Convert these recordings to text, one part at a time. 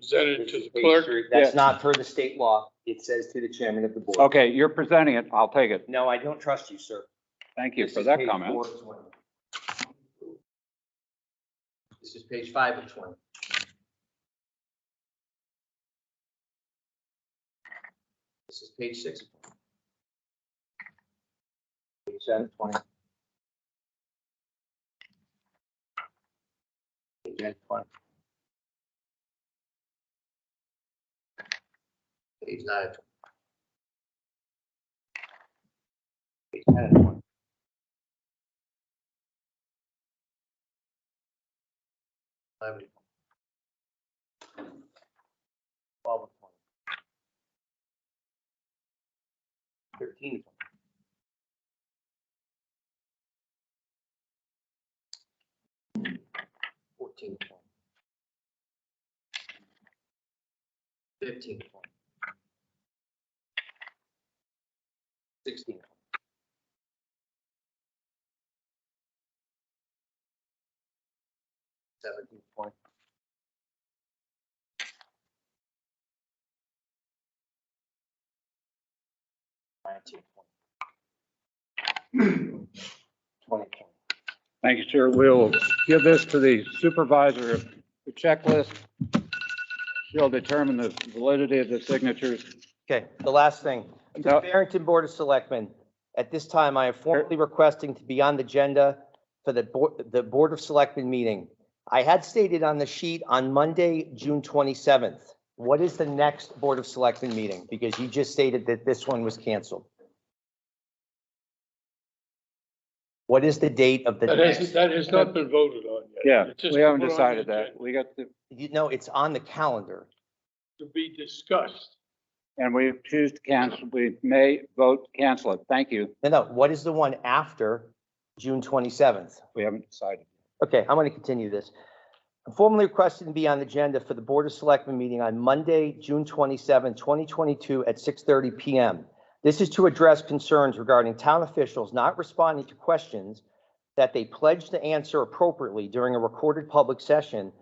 presented to the clerk. That's not per the state law. It says to the chairman of the board. Okay, you're presenting it. I'll take it. No, I don't trust you, sir. Thank you This for is that page comment. four of 20. This is page five of twenty. This is page six. of 20. Page seven of twenty. Page eight of twenty. Page nine. of 20. Page ten of 20. Eleven. Twelve. Thirteen. Fourteen. Fifteen. Sixteen. Seventeen point. Nineteen point. Twenty point. Thank you, sir. We'll give this to the supervisor of the checklist. She'll determine the validity of the signatures. Okay, the last thing. To the No. Barrington Board of Selectmen, at this time, I am formally requesting to be on the agenda for the Board, the Board of Selectmen meeting. I had stated on the sheet on Monday, June 27th. What is the next Board of Selectmen meeting? Because you just stated that this one was canceled. What is the date of the That has, next? that has not been voted on yet. Yeah, It's just we haven't put on the decided that. agenda We got the, You know, it's on the calendar. To be discussed. and we choose to cancel, we may vote to cancel it. Thank you. No, no, what is the one after June 27th? We haven't decided. Okay, I'm going to continue this. I'm Formally requested to be on the agenda for the Board of Selectmen meeting on Monday, June 27, 2022 at 6:30 PM. This is to address concerns regarding town officials not responding to questions that they pledged to answer appropriately during a recorded public session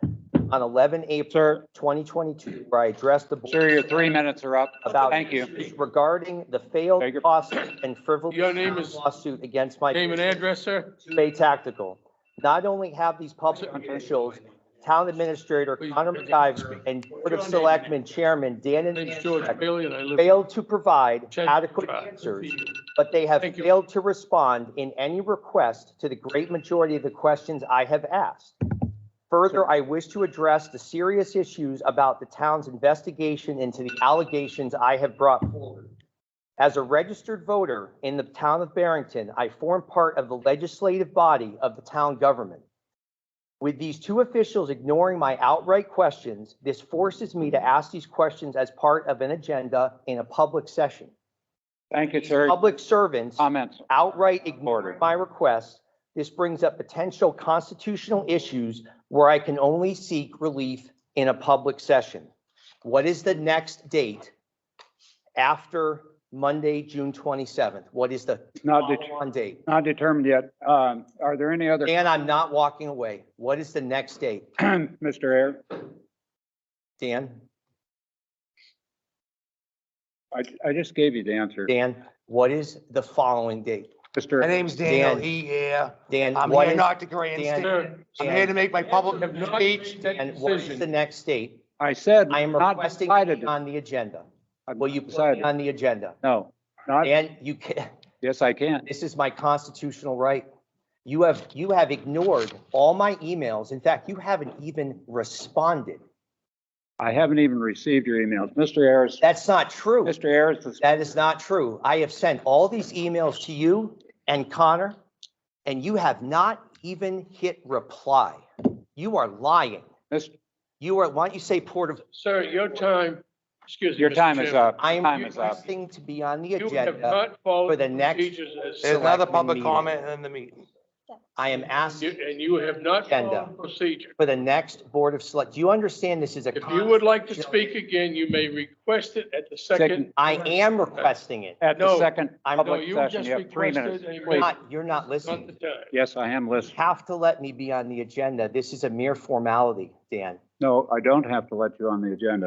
on 11 April 2022, where I addressed the Sir, board your three minutes are up. about Thank you. issues regarding the failed Beg your- lawsuit and frivolous Your name is- lawsuit against my Name and business. address, sir? Bay Tactical. Not only have these public officials, town administrator Please, Connor President McIver Kirby. and Board of Selectmen Chairman Dan My name's George Ananchek Bailey and I live. failed to provide Check- adequate uh, answers, but they have Thank you. failed to respond in any request to the great majority of the questions I have asked. Further, I wish to address the serious issues about the town's investigation into the allegations I have brought forward. As a registered voter in the town of Barrington, I form part of the legislative body of the town government. With these two officials ignoring my outright questions, this forces me to ask these questions as part of an agenda in a public session. Thank you, sir. Public servants Comments. outright ignored my request. This brings up potential constitutional issues where I can only seek relief in a public session. What is the next date after Monday, June 27th? What is the Not, det- follow-on date? not determined yet. Um, are there any other, Dan, I'm not walking away. What is the next date? Mr. Air? Dan, I, I just gave you the answer. Dan, what is the following date? My Mr. name's Daniel Dan. E. here. Dan, I'm what here is, not to grant, Dan- sta- Sir, I'm here to make my public have not speech. made that and what is the decision. next date? I said, I am not requesting to decided. be on the agenda. I'm Will you not put me decided. on the agenda? No, not, Dan, you can, yes, I can. This is my constitutional right. You have, you have ignored all my emails. In fact, you haven't even responded. I haven't even received your emails. Mr. Ayers, That's not true. Mr. Ayers, the- That is not true. I have sent all these emails to you and Connor, and you have not even hit reply. You are lying. Mis- You are, why don't you say port of, Sir, your time, excuse me. your Mr. time is Chairman. up. I am Time is up. requesting to be on the You have agenda. not followed for the the next- procedures as There's Selectmen another public meeting. comment in the meeting. I am asking You- And you have not Agenda. followed procedure. for the next Board of Select. Do you understand this is a? If you would like to speak again, you may request it at the second. Second. I am requesting it. At the No. second I'm- No, public you session, just you have three requested minutes. a- Please. Not, you're not Not listening. the time. Yes, I am You listening. have to let me be on the agenda. This is a mere formality, Dan. No, I don't have to let you on the agenda.